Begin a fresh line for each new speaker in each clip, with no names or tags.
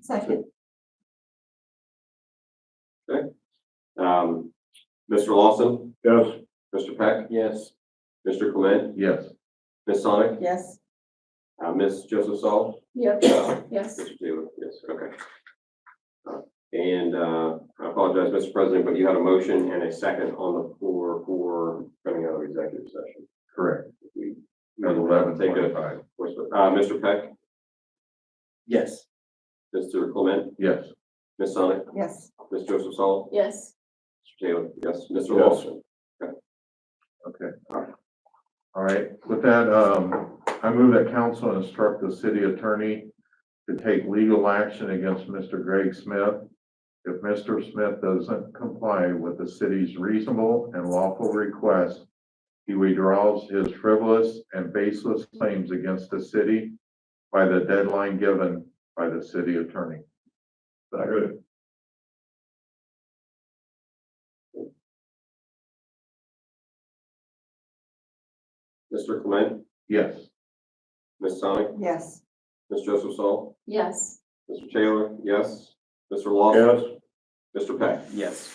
Second.
Um, Mr. Lawson,
Yes.
Mr. Peck,
Yes.
Mr. Clement,
Yes.
Ms. Sonic,
Yes.
uh, Ms. Joseph Saul,
Yes. Yes.
Mr. Taylor, yes, okay. Uh, And, uh, I apologize, Mr. President, but you had a motion and a second on the floor for coming out of executive session.
Correct.
We- Take a,
twenty-five.
uh, Mr. Peck,
Yes.
Mr. Clement,
Yes.
Ms. Sonic,
Yes.
Ms. Joseph Saul,
Yes.
Mr. Taylor, yes, Mr.
Yes.
Lawson.
Okay. All right, with that, um, I move that council instruct the city attorney to take legal action against Mr. Greg Smith. If Mr. Smith doesn't comply with the city's reasonable and lawful request, he withdraws his frivolous and baseless claims against the city by the deadline given by the city attorney. Second.
Mr. Clement,
Yes.
Ms. Sonic,
Yes.
Ms. Joseph Saul,
Yes.
Mr. Taylor, yes, Mr. Lawson, Mr. Peck.
Yes.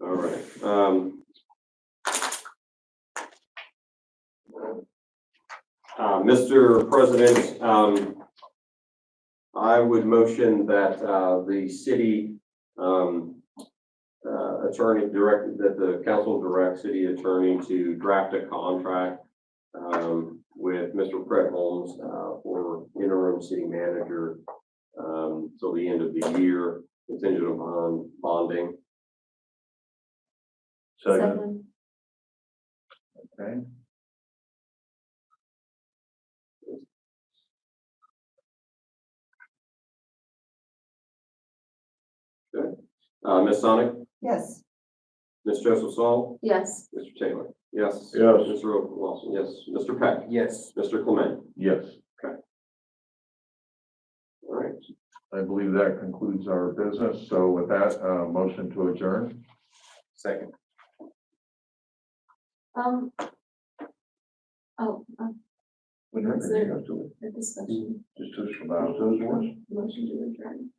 All right, um. Uh, Mr. President, um. I would motion that, uh, the city, um. Uh, attorney direct, that the council direct city attorney to draft a contract. Um, with Mr. Brett Holmes, uh, for interim city manager. Um, till the end of the year, contingent upon bonding.
Second.
Okay.
Uh, Ms. Sonic,
Yes.
Ms. Joseph Saul,
Yes.
Mr. Taylor. Yes.
Yes.
Mr. Lawson, yes. Mr. Peck,
Yes.
Mr. Clement.
Yes.
All right.
I believe that concludes our business. So with that, uh, motion to adjourn.
Second.
Um. Oh, um, Is there- the discussion,
Just to about those ones.
motion to adjourn.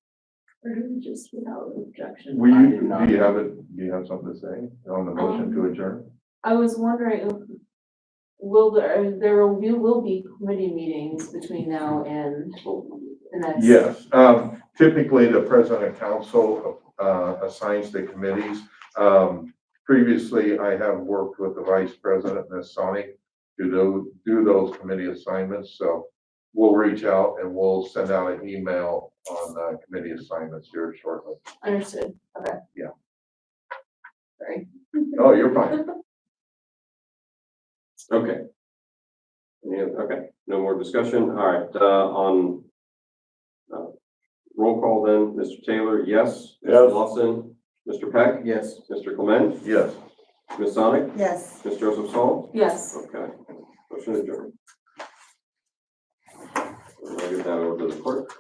Or do we just without objection?
Will
I
you,
do not. Um,
do you have it, do you have something to say on the motion to adjourn?
I was wondering, if- will
uh,
there, there will be, will be committee meetings between now and the next?
Yes, um, typically the president of council, uh, assigns the committees. Um, previously, I have worked with the vice president, Ms. Sonic, to do, do those committee assignments, so we'll reach out and we'll send out an email on, uh, committee assignments here shortly.
Understood, okay.
Yeah.
Sorry.
Oh, you're fine.
Okay. Any other- okay, no more discussion. All right, uh, on uh, roll call then, Mr. Taylor, yes. Mr.
Yes.
Lawson, Mr. Peck,
Yes.
Mr. Clement,
Yes.
Ms. Sonic,
Yes.
Ms. Joseph Saul.
Yes.
Okay, motion adjourned. I'll give that over to the clerk.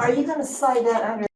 Are you gonna slide that under